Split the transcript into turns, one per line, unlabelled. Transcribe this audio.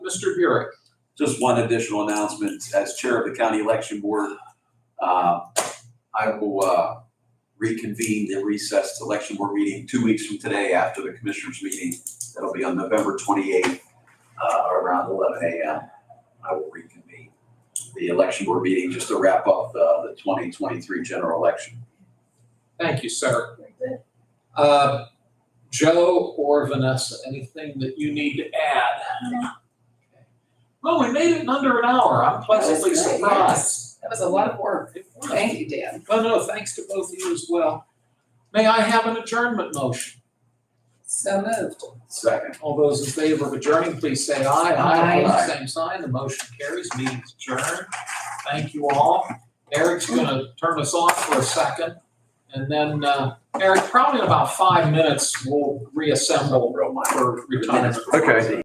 Mr. Burek.
Just one additional announcement, as Chair of the County Election Board, uh, I will uh, reconvene the recessed Election Board meeting two weeks from today after the Commissioners' meeting. That'll be on November 28th, uh, around 11 a.m. I will reconvene the Election Board meeting just to wrap up uh, the 2023 general election.
Thank you, sir. Uh, Joe or Vanessa, anything that you need to add? Well, we made it in under an hour. I'm pleasantly
That was great,
surprised.
That was a lot of work.
It was.
Thank you, Dan.
Well, Oh, no, thanks to both of you as well. May I have an adjournment motion?
So moved.
Second.
All those in favor of adjourning, please say aye.
Aye.
Opposed, Same sign, the motion carries, meeting is adjourned. Thank you all. Eric's gonna turn us off for a second. And then, uh, Eric, probably in about five minutes, we'll reassemble for retirement.
Okay.